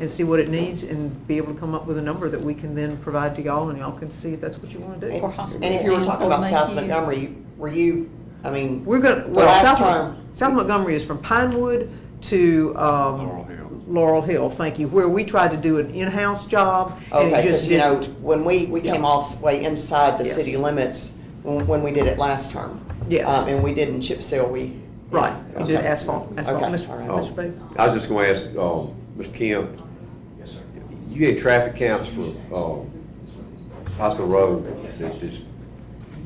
and see what it needs and be able to come up with a number that we can then provide to y'all and y'all can see if that's what you want to do. And- hospital And if you were and- talking or about South NICU. Montgomery, were you, I mean, We're gonna, well, last South, time- Mon- South Montgomery is from Pinewood to, Laurel um, Hill. Laurel Hill, thank you, where we tried to do an in-house job and okay, it because just you know, didn't. when we, we came all the way inside the Yes. city limits when, when we did it last term. Yes. Um, And we didn't chip seal, we. Right, we did Okay. asphalt, asphalt, Okay, Mr. all right. Mr. Bailey. Oh, I was just gonna ask, um, Mr. Kim, Yes, sir. you had traffic counts for, um, Hospital Road, that's just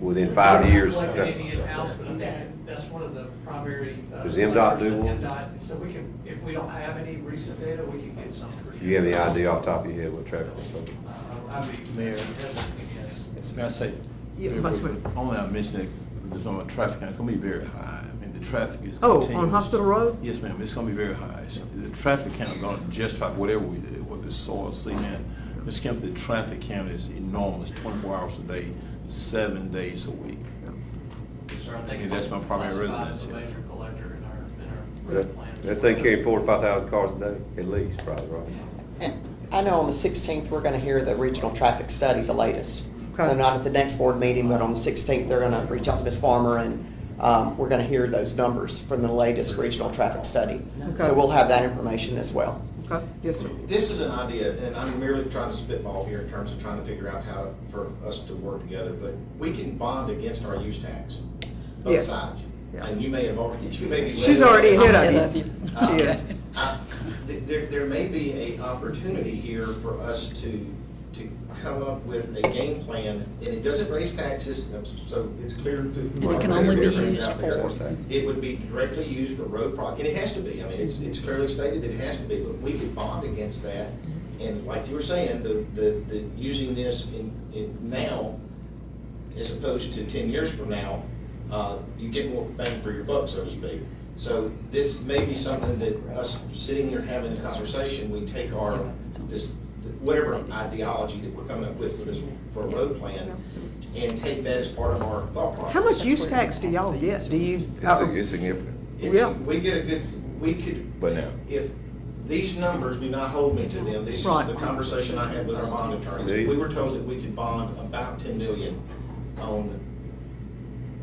within five years. Collected any in-house, but that- that's one of the primary. uh, Does MDOT do levers one? that MDOT So we can, if we don't have any recent data, we can get some. Do you have any idea off the top of your head what traffic counts are? Uh, I mean, Mayor. that's, yes. Can I say, Yeah, very Vice quickly, Mayor. only I mentioned that, just on traffic, it's gonna be very high. I mean, the traffic is Oh, on continuous. Hospital Road? Yes, ma'am, it's gonna be very high. It's- The traffic count gonna justify whatever we did, whether it's soil, cement. Ms. Kemp, the traffic count is enormous, twenty-four hours a day, seven days a week. Sir, I mean, that's my primary classified as residence, a yeah. major collector in our, in our plan. That- That thing carried four to five thousand cars a day, at least, probably, right? And I know on the 16th, we're going to hear the regional traffic study, the latest. So Okay. not at the next board meeting, but on the 16th, they're going to reach out to Ms. Farmer and um, we're going to hear those numbers from the latest regional traffic study. Okay. So we'll have that information as well. Okay, yes, sir. This is an idea, and I'm merely trying to spitball here in terms of trying to figure out how to- for us to work together, but we can bond against our use tax, both Yes. sides. Yeah. And you may have already, you may be. She's already ahead of I'm ahead you. of She you. is. Okay. I- th- There, there may be a opportunity here for us to, to come up with a game plan, and it doesn't raise taxes, so it's clear to. And it can only be used for- It would be directly used for road projects, and it has to be, I mean, it's, it's clearly stated that it has to be, but we could bond against that. And like you were saying, the, the, the, using this in, in now, as opposed to ten years from now, uh, you get more bang for your buck, so to speak. So this may be something that us sitting here having a conversation, we take our, this, whatever ideology that we're coming up with for this, for a road plan, and take that as part of our thought process. How much use tax do y'all get? Do you? uh, It's significant, Yeah. It's, we get a good, we could. But now- If these numbers do not hold me to them, this is Right. the conversation I had with our bond See? attorneys. We were told that we could bond about ten million on,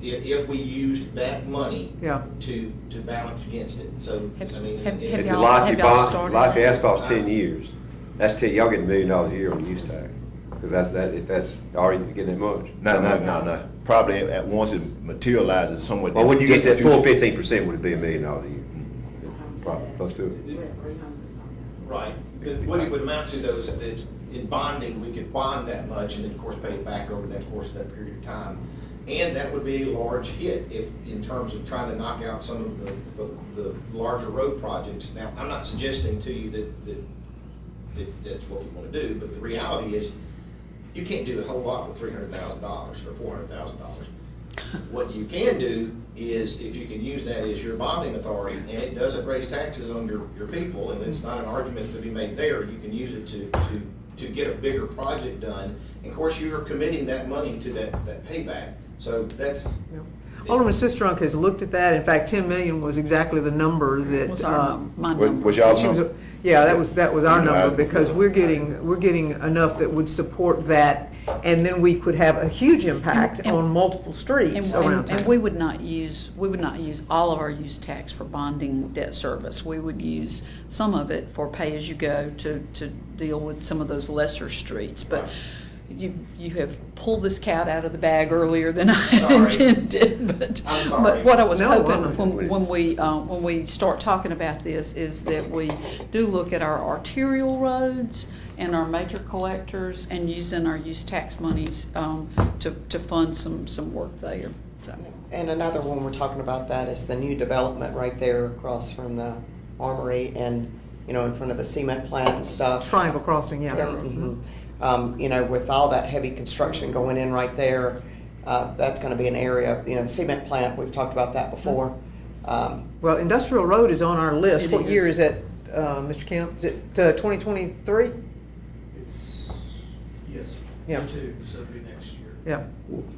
i- if we used that money Yeah. to, to balance against it, so, Have- I mean. have- it- have If it- the y'all- life you y'all bond, started life that? asphalt's ten years, that's ten, y'all get a million dollars a year on use tax, because that's, that, if that's already getting that much. no, no, no, no, probably at once it materializes somewhat. Well, when you get distant that full future. fifteen percent, would it be a million dollars a year? Probably, close to it. Right, But what it would amount to though is that in bonding, we could bond that much and then of course pay it back over that course of that period of time. And that would be a large hit if, in terms of trying to knock out some of the, the, the larger road projects. Now, I'm not suggesting to you that, that, that that's what we wanna do, but the reality is, you can't do a whole lot with three hundred thousand dollars or four hundred thousand dollars. What you can do is, if you can use that as your bonding authority, and it doesn't raise taxes on your, your people, and it's not an argument to be made there, you can use it to, to, to get a bigger project done. And of course, you are committing that money to that, that payback, so that's. Alderman Sistrunk has looked at that. In fact, 10 million was exactly the number that. Was our uh, num- my What- number. What's y'all's She was- number? Yeah, that was, that was our You know, I- number, because we're getting, we're getting enough that would support that, and then we could have a huge impact And- and- on multiple And, streets around and- and we town. would not use, we would not use all of our use tax for bonding debt service. We would use some of it for pay-as-you-go to, to deal with some of those lesser streets. But you, you have pulled this cat out of the bag earlier than I Sorry. intended, but. I'm But sorry. what I was No, hoping, I'm- when, when we, uh, when we start talking about this, is that we do look at our arterial roads and our major collectors and using our use tax monies, um, to, to fund some, some work there, so. And another one we're talking about that is the new development right there across from the Armory and, you know, in front of the cement plant and stuff. Triangle Crossing, yeah. Yeah, mhm. Um, you know, with all that heavy construction going in right there, uh, that's gonna be an area, you know, the cement plant, we've talked about Mm-hmm. that before. Um, Well, Industrial Road is on our list. It What year is is. that, uh, Mr. Kemp? Is it uh, 2023? It's, yes. Yeah. Two, so it'll be next year. Yeah,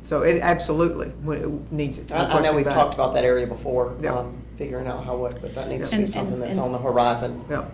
so it absolutely w- needs it. I, I know we've talked about that area before, Yeah. um, figuring out how, what, but that needs to Yeah. be And- something and- that's and- on the horizon. Yeah,